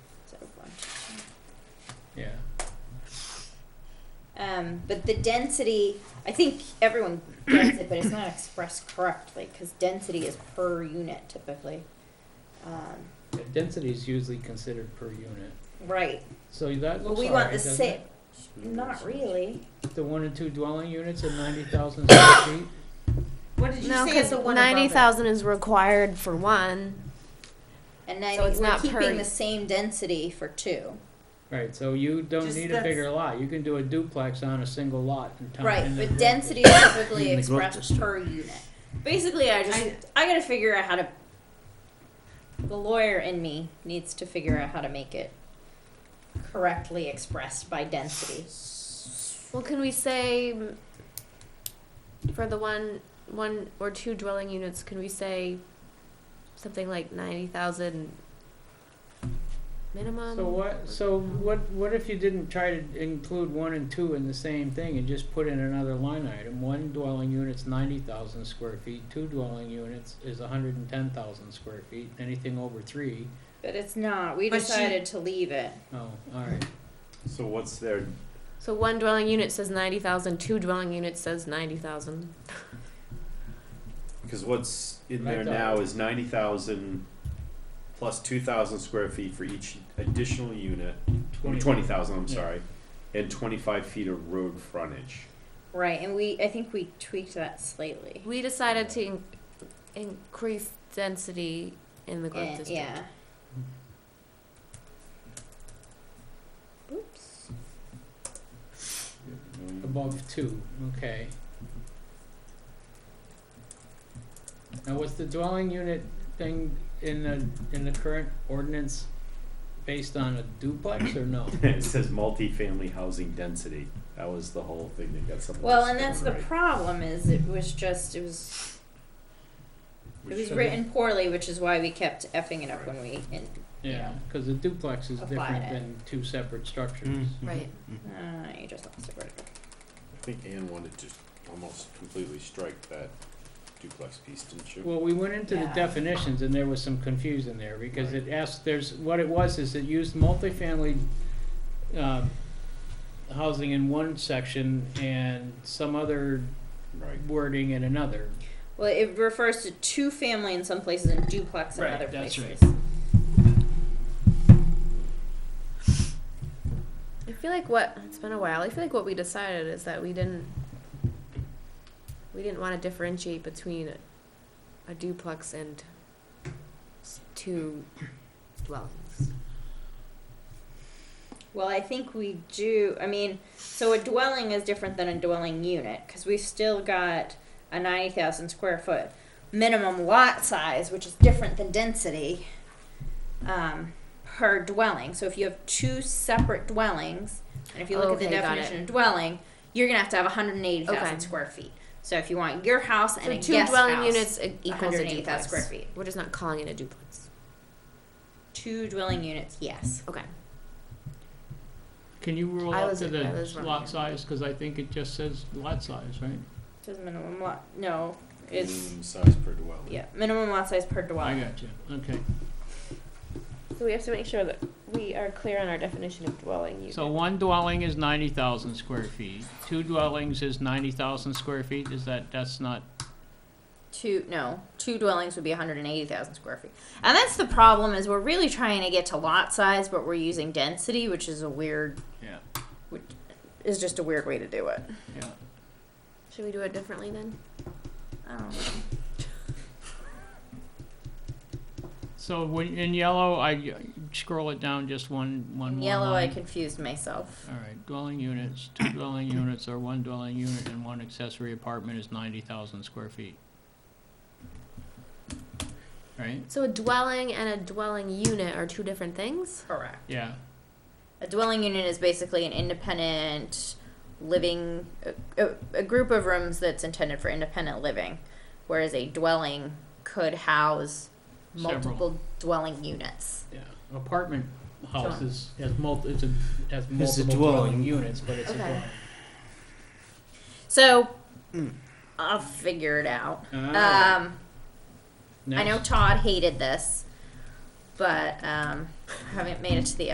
Um, but the density, I think everyone gets it, but it's not expressed correctly, cause density is per unit typically. Um, Yeah, Density is usually considered per unit, right, so that well, looks we all want right, the doesn't same, it? not really, The one and two dwelling units at ninety thousand square feet, What did you No, say is because the one above it? ninety thousand is required for one. and then So it's we're not per- keeping the same density for two. right, so you don't Just need a that's- bigger lot, you can do a duplex on a single lot in town. Right, in the but growth- density is typically In the growth expressed district. per unit. Basically, I just, I- I gotta figure out how to, the lawyer in me needs to figure out how to make it correctly expressed by density. Well, can we say mm, for the one, one or two dwelling units, can we say something like ninety thousand minimum? So what, so what, what if you didn't try to include one and two in the same thing and just put in another line item? One dwelling unit's ninety thousand square feet, two dwelling units is hundred and ten thousand square feet, anything over three, But it's not, we But she- decided to leave it. oh, alright. So what's their So one dwelling unit says ninety thousand. Two dwelling units says ninety thousand. because what's in Right, there though. now is ninety thousand plus two thousand square feet for each additional unit. Twenty thousand, I'm Yeah. sorry, and twenty-five feet of road frontage. Right, and we, I think we tweaked that slightly. We decided to in- increase density in the growth And- district. Eh, yeah. Oops. Above two, okay. Now, was the dwelling unit thing in the, in the current ordinance based on a duplex or no? It says multifamily housing density. That was the whole thing that got something. Well, and that's the problem is it was just, it was, it was should- written poorly, which is why we kept effing it up when we, and, Yeah, cause a duplex is Applied different it. than two separate structures. Mm. Right. uh, you just lost it. Where'd it go? I think Anne wanted to almost completely strike that duplex piece, didn't she? Well, we went into the Yeah. definitions and there was some confusion there because it asked, there's, what it was is it used multifamily, uh, housing in one section and some other Right. wording in another. Well, it refers to two family in some places and duplex in Right, other that's places. right. I feel like what it's been a while. I feel like what we decided is that we didn't we didn't want to differentiate between a, a duplex and s- two dwellings. Well, I think we do. I mean, so a dwelling is different than a dwelling unit because we've still got a 90,000 square foot minimum lot size, which is different than density um, per dwelling. So if you have two separate dwellings, and if you look at Okay, the got definition of dwelling, you're going to have to have 180,000 Okay. square feet. So if you want your house and So a two guest dwelling house, units e- equals a 180,000 duplex. square feet. We're just not calling it a duplex. two dwelling units, yes. Okay. Can you roll I up was- to I was the wrong lot here. size, cause I think it just says lot size, right? Says minimum lot. No, it's Minimum size per dwelling. yeah, minimum lot size per I dwelling. got you, okay. So we have to make sure that we are clear on our definition of dwelling unit. So one dwelling is ninety thousand square feet, two dwellings is ninety thousand square feet, is that, that's not, two no two dwellings would be 180000 square feet and that's the problem is we're really trying to get to lot size but we're using density which is a weird yeah, which is just a weird way to do it yeah. Should we do it differently then? I don't know. So when, in yellow, I scroll it down just one, one in more yellow i line. confused myself All right, dwelling units, two dwelling units or one dwelling unit and one accessory apartment is ninety thousand square feet. Right, So a dwelling and a dwelling unit are two different things. correct yeah, a dwelling unit is basically an independent living a, a, a group of rooms that's intended for independent living whereas a dwelling could house Several. multiple dwelling units yeah. Apartment houses has mul, it's a, has multiple dwelling dwelling. units, but it's a Okay. dwelling. so i'll figure it out All right, um I know next. Todd hated this, but um, I haven't made it to the